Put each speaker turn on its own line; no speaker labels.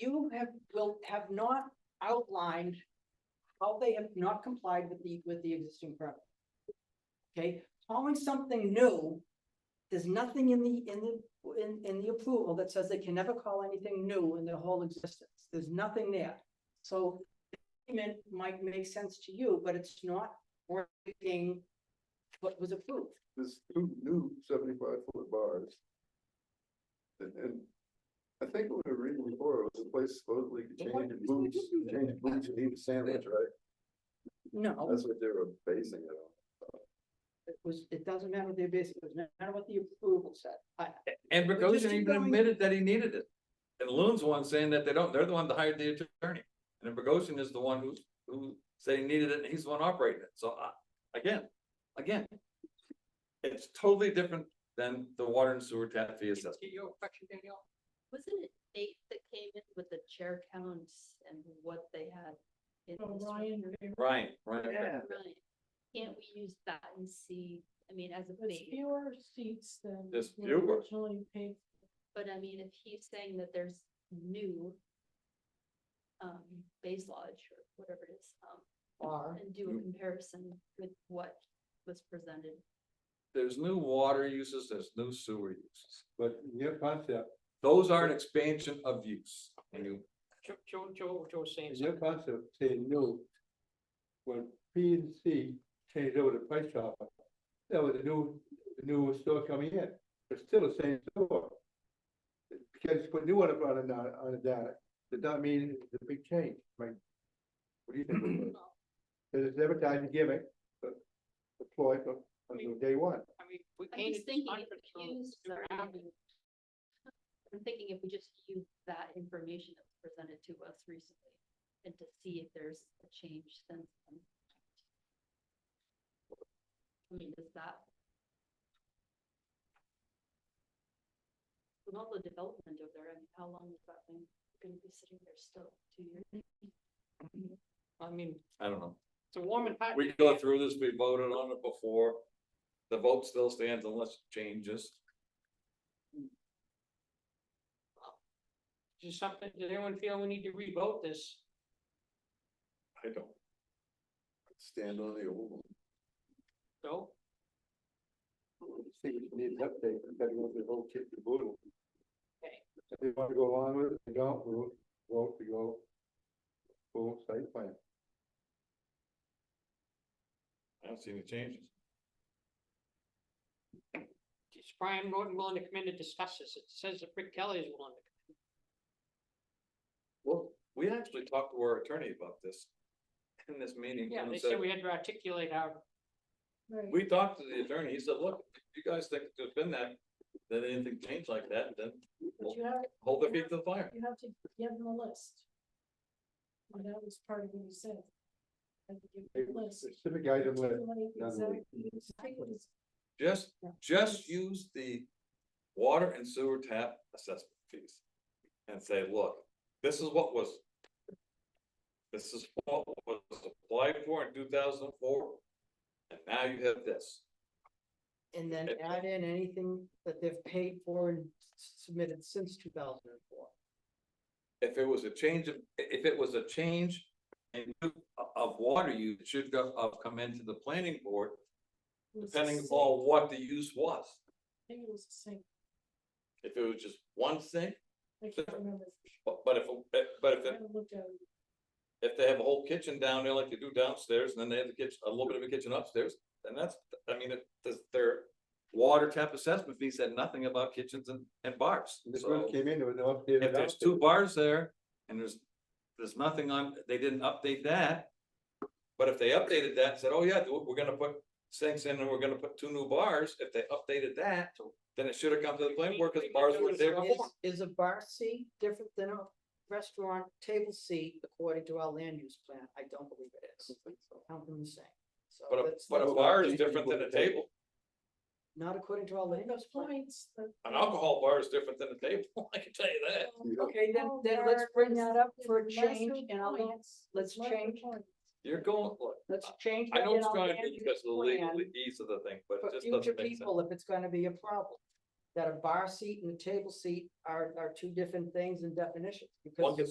you have, will, have not outlined how they have not complied with the, with the existing permit. Okay, calling something new, there's nothing in the, in the, in, in the approval that says they can never call anything new in their whole existence. There's nothing there. So it might make sense to you, but it's not working what was approved.
There's two new seventy-five foot bars. And, and I think what we were reading before was the place supposedly changed boots, changed boots and eat a sandwich, right?
No,
That's what they were basing it on.
it was, it doesn't matter what they basically, it doesn't matter what the approval said. I,
And
But just
Bogosian
keep
even
going.
admitted that he needed it. And Loon's the one saying that they don't, they're the one that hired the attorney. And then Bogosian is the one who's, who said he needed it and he's the one operating it. So I, again, again. It's totally different than the water and sewer tap fee assessment.
Wasn't it Nate that came in with the chair counts and what they had? in
Oh,
this room?
Ryan, Ryan.
Right. Can't we use that and see, I mean, as a
There's
base,
fewer seats than.
There's
were
fewer.
Originally paid.
but I mean, if he's saying that there's new. Um, base lodge or whatever it is, um,
Bar.
and do a comparison with what was presented.
There's new water uses, there's new sewer uses.
But your concept,
Those are an expansion of use. And you,
Joe, Joe, Joe, Joe was saying
your
something.
concept saying no. When P and C changed over to Price Chopper, that was a new, new store coming in, but still the same store. Because you put new one up on a, on a data, does not mean it's a big change, right? What do you think? of that? There's this advertising gimmick, but deployed from, from day one.
I mean, we
I'm just
painted
thinking if
hundreds
we
of
use the.
different avenues.
I'm thinking if we just use that information that was presented to us recently and to see if there's a change since. then. I mean, does that? With all the development over there, I mean, how long is that thing gonna be sitting there still, two years?
I mean,
I don't know.
it's a warm and hot.
We go through this, we voted on it before. The vote still stands unless it changes.
Is something, does anyone feel we need to revote this?
I don't.
Stand on the old one.
So,
See, you need an update, you gotta go through the whole kit and caboodle.
Okay.
If they wanna go along with it, they don't, we'll, we'll, we go. Full site plan.
I don't see any changes.
is Brian Norton willing to come in to discuss this? It says that Rick Kelly is willing to.
Well, we actually talked to our attorney about this in this meeting.
Yeah,
and
they
said-
said we had to articulate our,
Right.
We talked to the attorney, he said, look, if you guys think it's been that, then anything changed like that, then
But you have,
hold their feet to the fire.
you have to give them a list. And that was part of what you said. Have to give them a list.
Specific item list.
Like
none of
exact-
it.
exactly
Just,
Yeah.
just use the water and sewer tap assessment fees. And say, look, this is what was. This is what was applied for in two thousand and four. And now you have this.
And then
Okay.
add in anything that they've paid for and s- submitted since two thousand and four.
If it was a change of, i- if it was a change. in of water use, it should go, uh, come into the planning board,
was the
depending
same.
on what the use was.
I think it was the same.
If it was just one sink,
I can't remember.
but, but if, uh, but if
I
it
haven't looked at it.
if they have a whole kitchen down there like they do downstairs, and then they have the kitchen, a little bit of a kitchen upstairs, then that's, I mean, it, does their. Water tap assessment fee said nothing about kitchens and, and bars,
This
so
one came in, there was no updated.
if there's
outfit.
two bars there, and there's, there's nothing on, they didn't update that. But if they updated that, and said, oh yeah, we're gonna put sinks in and we're gonna put two new bars, if they updated that, then it should have come to the planning board, cause bars were there
Is-
before.
Is a bar seat different than a restaurant table seat according to our land use plan? I don't believe it is. Count them the same. So
But a,
that's
but a
that's
bar is different than a table,
Not according to our land use
Those
plan.
points. that-
an alcohol bar is different than a table, I can tell you that.
Okay, then,
Oh,
Alcohol
then let's bring
bars
that up
is
for a
lesser
change in our, land-
points,
let's
lesser
change.
points.
You're going, look,
let's change.
I
that
know
in
it's
our
gonna
land
be
use
because of the
plan.
legal ease of the thing, but
for
it just
future
doesn't make sense.
people if it's gonna be a problem. That a bar seat and a table seat are, are two different things in definitions. because
One gets